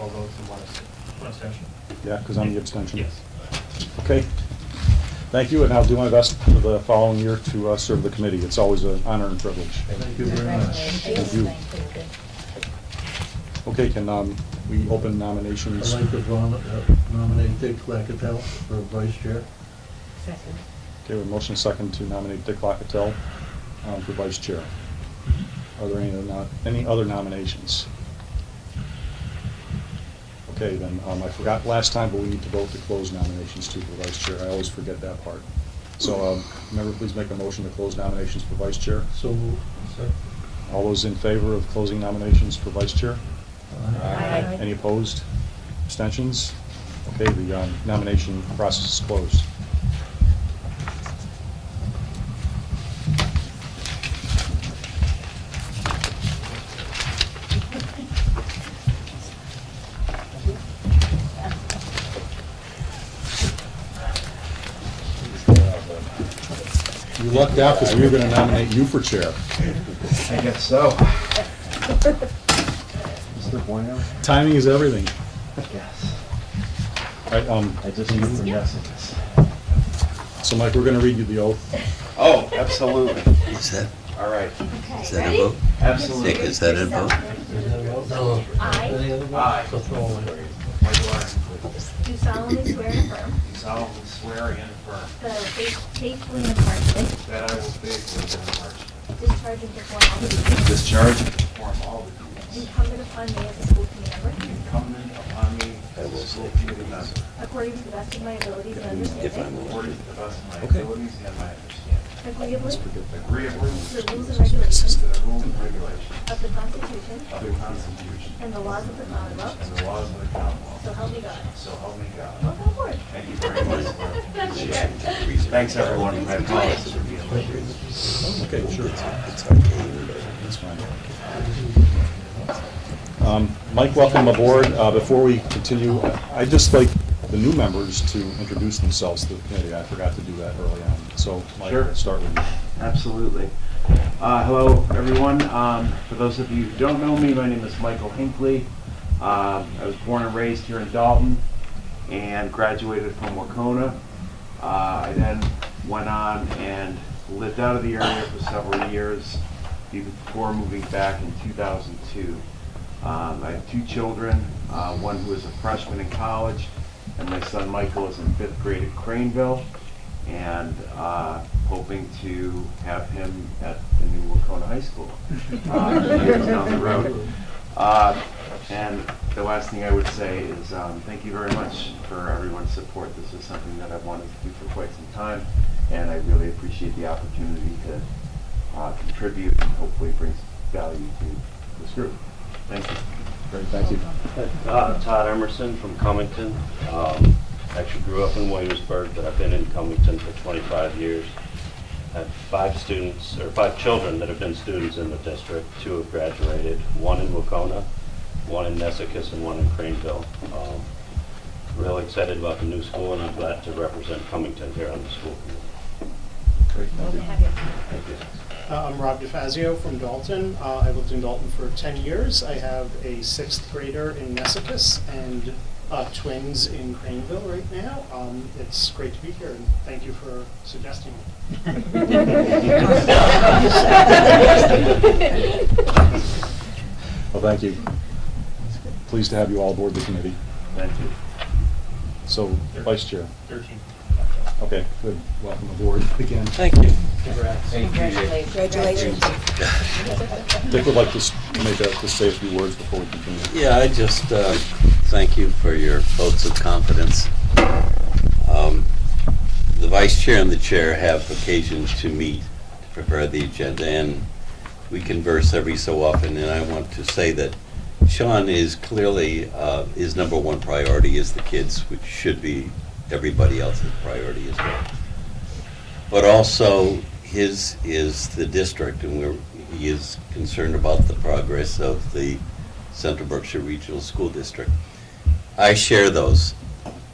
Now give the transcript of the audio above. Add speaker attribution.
Speaker 1: all votes in one abstention.
Speaker 2: One abstention.
Speaker 3: Yeah, because I'm the abstention.
Speaker 2: Yes.
Speaker 3: Okay. Thank you, and I'll do my best for the following year to uh, serve the committee. It's always an honor and privilege.
Speaker 1: Thank
Speaker 4: you very much.
Speaker 3: Thank you. Okay, can um, we open nominations?
Speaker 4: I'd like to nom- uh, nominate Dick Clackettell for vice chair.
Speaker 5: Second.
Speaker 3: Okay, with motion second to nominate Dick Locatell um, for vice chair. Are there any other, no- any other nominations? Okay, then, um, I forgot last time, but we need to vote to close nominations too for vice chair. I always forget that part. So, um, member, please make a motion to close nominations for vice chair.
Speaker 4: So moved.
Speaker 3: All those in favor of closing nominations for vice chair?
Speaker 5: Aye.
Speaker 3: Any opposed? Abstentions? Okay, the um, nomination process is closed. You lucked out because we were going to nominate you for chair.
Speaker 1: I guess so. Mr. Bueno?
Speaker 3: Timing is everything.
Speaker 1: Yes.
Speaker 3: All right, um,
Speaker 1: I just need some yeses.
Speaker 3: so Mike, we're going to read you the oath.
Speaker 1: Oh, absolutely.
Speaker 6: Is that,
Speaker 1: All right,
Speaker 6: is that a vote? Dick,
Speaker 1: absolutely.
Speaker 6: is that a vote?
Speaker 4: No. Any other one?
Speaker 1: Aye.
Speaker 4: It's a throwaway.
Speaker 1: I do I
Speaker 7: Do solemnly swear and affirm
Speaker 1: solemnly swear and affirm
Speaker 7: that I will faith- faithfully and impartially
Speaker 1: that I will faithfully and impartially
Speaker 7: discharge and perform all
Speaker 1: discharge and perform all
Speaker 7: the duties
Speaker 1: the duties
Speaker 7: incumbent upon me as a school committee member
Speaker 1: incumbent upon me as a school committee member
Speaker 7: according to the best of my abilities and understanding,
Speaker 1: according to the best of my abilities and my understanding,
Speaker 7: agreeably
Speaker 1: agreeably
Speaker 7: to the
Speaker 1: to
Speaker 7: rules and regulations
Speaker 1: the rules and regulations
Speaker 7: of the Constitution
Speaker 1: of the Constitution
Speaker 7: and the laws of the Commonwealth,
Speaker 1: and the laws of the Commonwealth,
Speaker 7: so help me God.
Speaker 1: so help me God.
Speaker 7: Welcome aboard.
Speaker 1: Thank you very much. Thanks, everyone. I apologize for being late.
Speaker 3: Okay, sure. That's fine. Um, Mike, welcome aboard. Uh, Before we continue, I'd just like the new members to introduce themselves to the committee. I forgot to do that early on. So, Mike,
Speaker 8: Sure.
Speaker 3: I'll start with you.
Speaker 8: Absolutely. Uh, hello, everyone. Um, for those of you who don't know me, my name is Michael Hinckley. Um, I was born and raised here in Dalton and graduated from Wakona. Uh, I then went on and lived out of the area for several years even before moving back in 2002. Um, I have two children, uh, one who is a freshman in college, and my son Michael is in fifth grade at Craneville and uh, hoping to have him at the new Wacona High School uh, years down the road. Uh, and the last thing I would say is um, thank you very much for everyone's support. This is something that I've wanted to do for quite some time, and I really appreciate the opportunity to uh, contribute and hopefully brings value to this group. Thank you.
Speaker 3: Great, thank you.
Speaker 9: Uh, Todd Emerson from Cummington. Um, Actually grew up in Williamsburg, but I've been in Cummington for 25 years. I have five students, or five children that have been students in the district. Two have graduated, one in Wacona, one in Nesicus, and one in Craneville. Um, Real excited about the new school, and I'm glad to represent Cummington here on the school committee.
Speaker 3: Great, thank
Speaker 5: Glad to
Speaker 3: you.
Speaker 5: have you.
Speaker 9: Thank you.
Speaker 10: Uh, I'm Rob DeFazio from Dalton. Uh, I've lived in Dalton for 10 years. I have a sixth grader in Nessicus and uh, twins in Craneville right now. Um, It's great to be here, and thank you for suggesting me.
Speaker 3: Well, thank you. Pleased to have you all aboard the committee.
Speaker 8: Thank you.
Speaker 3: So, vice chair.
Speaker 2: Thirteen.
Speaker 3: Okay, good. Welcome aboard again.
Speaker 6: Thank you.
Speaker 5: Congratulations. Congratulations.
Speaker 3: Dick would like to s- make a, to say a few words before we continue.
Speaker 6: Yeah, I just uh, thank you for your votes of confidence. Um, The vice chair and the chair have occasion to meet, to prepare the agenda, and we converse every so often, and I want to say that Sean is clearly, uh, his number one priority is the kids, which should be everybody else's priority as well. But also, his is the district, and we're, he is concerned about the progress of the Central Berkshire Regional School District. I share those.